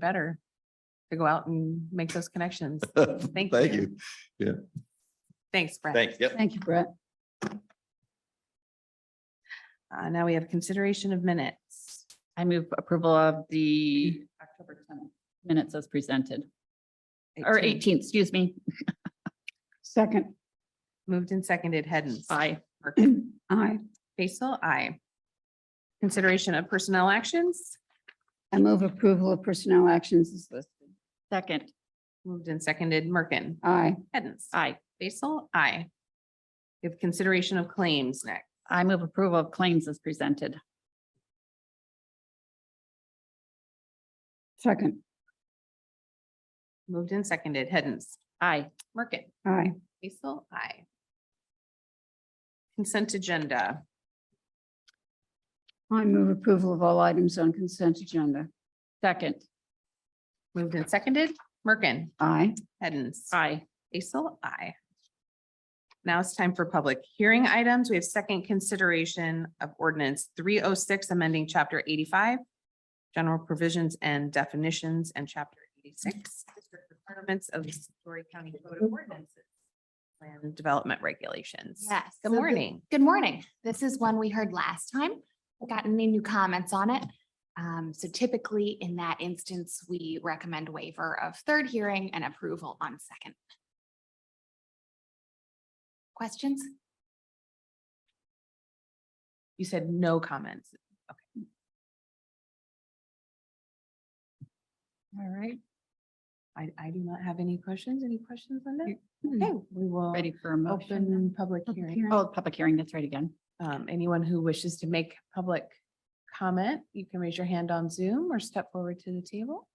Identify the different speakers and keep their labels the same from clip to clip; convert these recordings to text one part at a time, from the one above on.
Speaker 1: better to go out and make those connections. Thank
Speaker 2: Thank
Speaker 1: you.
Speaker 2: you.
Speaker 1: Thanks, Brent.
Speaker 2: Thanks. Yep.
Speaker 3: Thank you, Brett.
Speaker 1: Uh, now we have consideration of minutes.
Speaker 3: I move approval of the October 10th minutes as presented, or 18th, excuse me. Second.
Speaker 1: Moved and seconded, Hens.
Speaker 3: Aye.
Speaker 4: Aye.
Speaker 1: Basil, aye. Consideration of personnel actions,
Speaker 4: I move approval of personnel actions as listed.
Speaker 3: Second.
Speaker 1: moved and seconded, Merkin.
Speaker 4: Aye.
Speaker 1: Hens.
Speaker 3: Aye.
Speaker 1: Basil, aye. We have consideration of claims next.
Speaker 3: I move approval of claims as presented.
Speaker 4: Second.
Speaker 1: Moved and seconded, Hens.
Speaker 3: Aye.
Speaker 1: Merkin.
Speaker 4: Aye.
Speaker 1: Basil, aye. Consent agenda,
Speaker 4: I move approval of all items on consent agenda.
Speaker 3: Second.
Speaker 1: moved and seconded, Merkin.
Speaker 4: Aye.
Speaker 1: Hens.
Speaker 3: Aye.
Speaker 1: Basil, I. Now it's time for public hearing items. We have second consideration of ordinance three oh six, amending chapter eighty-five, general provisions and definitions, and chapter eighty-six, district requirements of the Story County Code of Ordinances and Development Regulations.
Speaker 5: Yes.
Speaker 1: Good
Speaker 5: so
Speaker 1: morning.
Speaker 5: Good morning. This is one we heard last time. We Got any new comments on it? Um, so typically in that instance, we recommend waiver of third hearing and approval on second. Questions?
Speaker 1: You said no comments.
Speaker 3: All right.
Speaker 1: I, I do not have any questions. Any questions on that?
Speaker 3: Ready
Speaker 5: hmm.
Speaker 1: Okay, we will
Speaker 3: for a motion?
Speaker 1: open public hearing.
Speaker 3: Oh, public hearing, that's right again.
Speaker 1: Um, anyone who wishes to make public comment, you can raise your hand on Zoom or step forward to the table.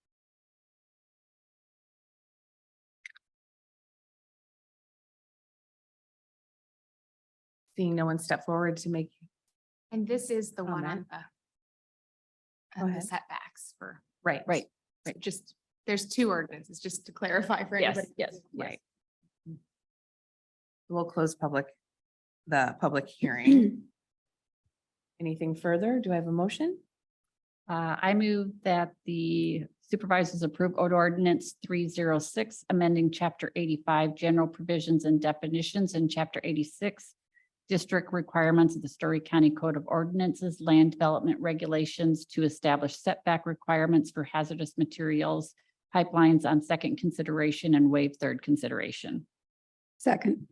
Speaker 1: Seeing no one step forward to make,
Speaker 5: And this is the one
Speaker 1: Comment.
Speaker 5: on the
Speaker 1: Go
Speaker 5: on the
Speaker 1: ahead.
Speaker 5: setbacks for,
Speaker 1: right.
Speaker 3: Right.
Speaker 5: so just, there's two ordinances, just to clarify for
Speaker 3: Yes,
Speaker 5: everybody.
Speaker 3: yes, yes.
Speaker 1: Right. We'll close public, the public hearing. Anything further? Do I have a motion?
Speaker 3: Uh, I move that the supervisors approve Order ordinance three zero six, amending chapter eighty-five, general provisions and definitions and chapter eighty-six, district requirements of the Story County Code of Ordinances, land development regulations to establish setback requirements for hazardous materials, pipelines on second consideration and waive third consideration.
Speaker 4: Second.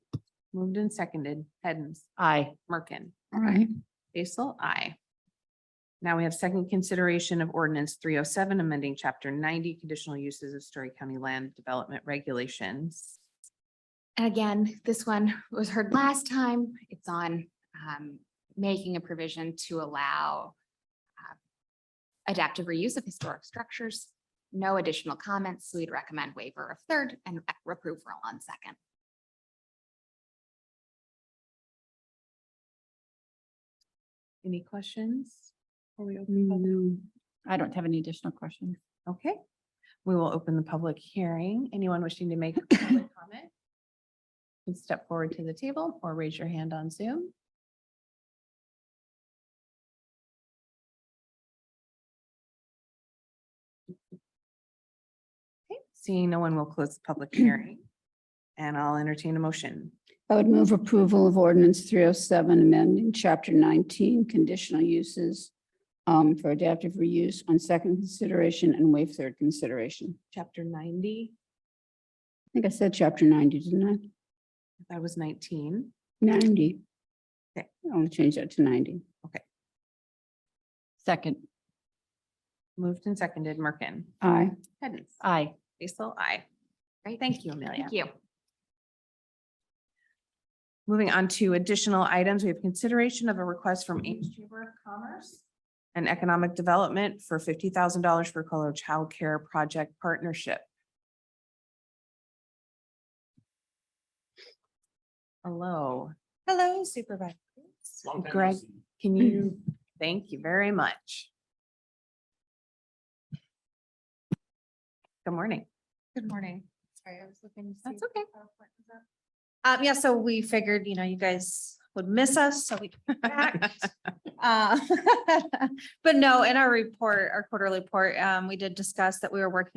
Speaker 1: Moved and seconded. Hens,
Speaker 3: Aye.
Speaker 1: Merkin.
Speaker 4: Aye.
Speaker 1: Basil, I. Now we have second consideration of ordinance three oh seven, amending chapter ninety, conditional uses of Story County land development regulations.
Speaker 5: And again, this one was heard last time. It's on um, making a provision to allow uh, adaptive reuse of historic structures. No additional comments. so We'd recommend waiver of third and approval on second.
Speaker 1: Any questions? Before we open public-
Speaker 3: I don't have any additional questions.
Speaker 1: Okay, we will open the public hearing. Anyone wishing to make a public comment? Can step forward to the table or raise your hand on Zoom. Okay, Seeing no one will close the public hearing. And I'll entertain a motion.
Speaker 4: I would move approval of ordinance three oh seven amending chapter nineteen conditional uses um, for adaptive reuse on second consideration and waive third consideration.
Speaker 1: Chapter ninety,
Speaker 4: I think I said chapter ninety, didn't
Speaker 1: that was nineteen.
Speaker 4: I? Ninety.
Speaker 1: Okay.
Speaker 4: I'll change that to ninety.
Speaker 3: Second,
Speaker 1: Moved and seconded, Merkin.
Speaker 4: Aye.
Speaker 1: Hens.
Speaker 3: aye.
Speaker 1: Basil, aye.
Speaker 5: Great.
Speaker 1: Thank you, Amelia.
Speaker 5: Thank you.
Speaker 1: Moving on to additional items, we have consideration of a request from Ames Chamber of Commerce and Economic Development for fifty thousand dollars for Color Childcare Project Partnership. Hello. Hello Supervisor. Greg, can you, thank you very much. Good morning.
Speaker 5: Good morning. Sorry, I was looking.
Speaker 1: That's okay.
Speaker 2: Um, yeah, so we figured, you know, you guys would miss us, so we. came back. Uh, But no, in our report, our quarterly report, um, we did discuss that we were working